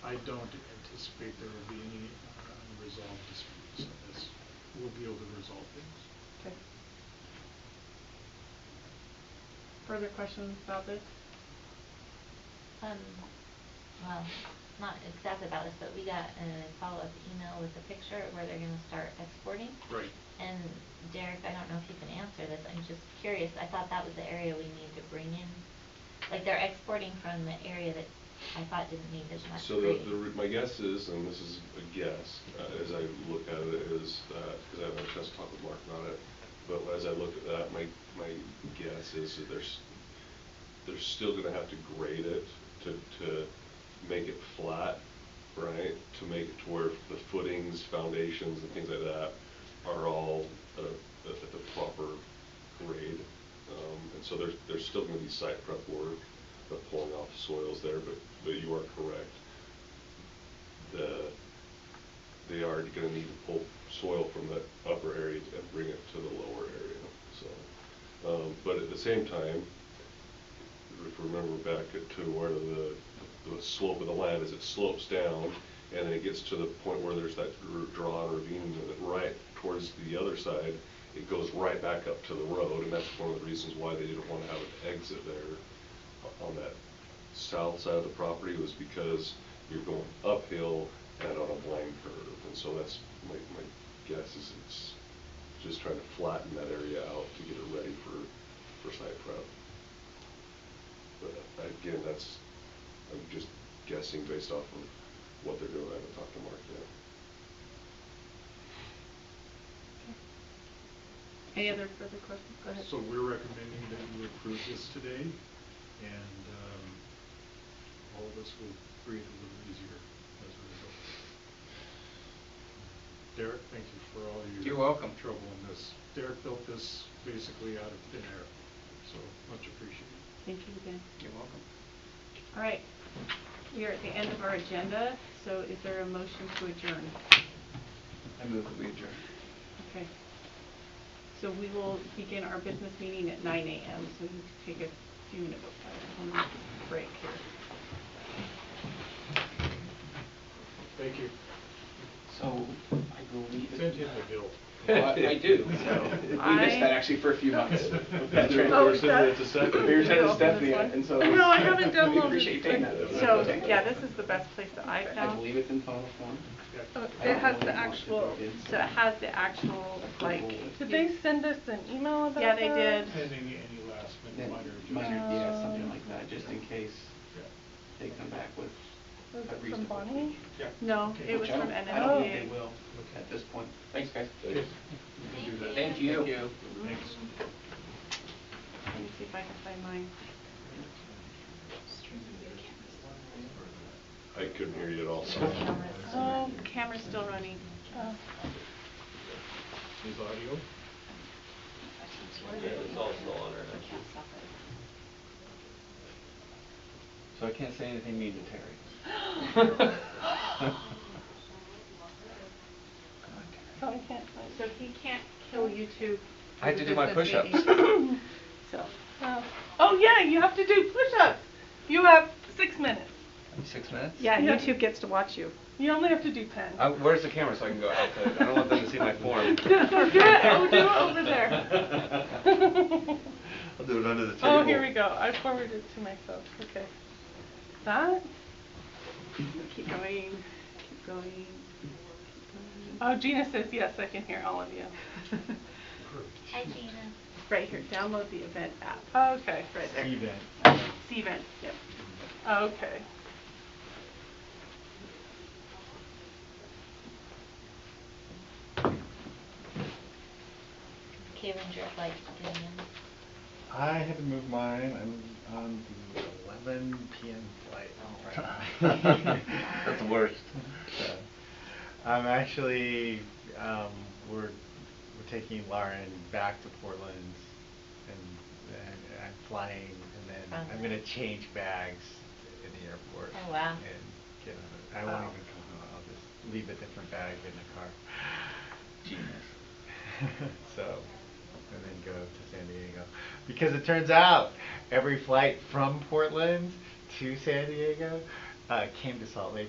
I don't anticipate there will be any uh, unresolved disputes. in This, we'll be able to resolve things. Okay. Further questions about this? Um, well, not exactly about this, but we got a follow-up email with a picture of where they're gonna start exporting. Right. And Derek, I don't know if you can answer this, I'm just curious, I thought that was the area we need to bring in. Like, they're exporting from the area that I thought didn't need as much So the, grading. the, re- my guess is, and this is a guess, uh, as I look at it, is, because I haven't had a chance to talk with Mark about it, but as I look at that, my, my guess is that there's, they're still gonna have to grade it to, to make it flat, right? To make it to where the footings, foundations, and things like that are all uh, at at the proper grade. Um, And so there's, there's still gonna be site prep work, the pulling off soils there, but, but you are correct. The, they are gonna need to pull soil from the upper area and bring it to the lower area, so. Um, But at the same time, if you remember back to where the, the slope of the land is, it slopes down, and then it gets to the point where there's that r- draw and ravine, and then right towards the other side, it goes right back up to the road, and that's one of the reasons why they didn't wanna have an exit there o- on that south side of the property, was because you're going uphill and on a blind curve, and so that's, my, my guess is it's just trying to flatten that area out to get it ready for, for site prep. But uh, again, that's, I'm just guessing based off of what they're doing, I haven't talked to Mark yet. Any other further questions? Go ahead. So we're recommending that you approve this today, and um, all of us will breathe a little easier as a result. Derek, thank you for all your. You're welcome. Trouble in this. Derek built this basically out of thin air, so much appreciated. Thank you again. You're welcome. All right, we are at the end of our agenda, so is there a motion to adjourn? I move that we adjourn. Okay. So we will begin our business meeting at nine AM, so you can take a few minutes, break here. Thank you. So I go leave it. Send him the bill. Well, I I do, so we missed I- that actually for a few months. That's right. Oh, We're sending it to that's- Stephanie. We were You're sending to open this Stephanie, one? and so. No, I haven't downloaded. We appreciate you taking that. So, yeah, this is the best place that I I've I found. believe it's in final form. Oh, Yeah. I It don't has know the what you want to actual, vote in, so it so- has the actual, like. Did they you- send us an email about that? Yeah, they did. Pending any last Then minute minor Minor, adjustments. yeah, something like that, just in case Yeah. they come back with a Was it from reasonable Bonnie? fee. Yeah. No, Okay. it was Which I from don't- I don't think NMDA. they will at this point. Thanks, guys. Okay, we can do that. Thank you. Thanks. Let me see if I can find mine. I couldn't hear you at all. Cameras. Oh, Camera's still running. oh. Is audio? So I can't say anything mean to Terry. So I can't, So he can't kill YouTube. I had to do my business push-ups. meeting. So, oh. Oh, yeah, you have to do push-ups. You have six minutes. Six minutes? yeah, Yeah. YouTube gets to watch you. You only have to do ten. Uh, where's the camera so I can go outside? I don't want them to see my form. Do it, oh, do it over there. I'll do it under the Oh, here we go. I forwarded it to myself, okay. That? Keep going, keep going, keep going. Oh, Gina says, yes, I can hear all of you. Hi, Gina. Right here, download the event app. Okay, Right there. Event. See events, yep. okay. Kevin, you're like, getting in. I had to move mine. I'm on the 11 p.m. flight. That's the worst. So, I'm actually um, we're we're taking Lauren back to Portland, and, and I'm flying, and then I'm Fun. gonna change bags in the airport. Oh, wow. Oh. And get on it. I won't Wow. even come home. I'll just leave a different bag in the car. so, and then go to San Diego. Because it turns out every flight from Portland to San Diego uh, came to Salt Lake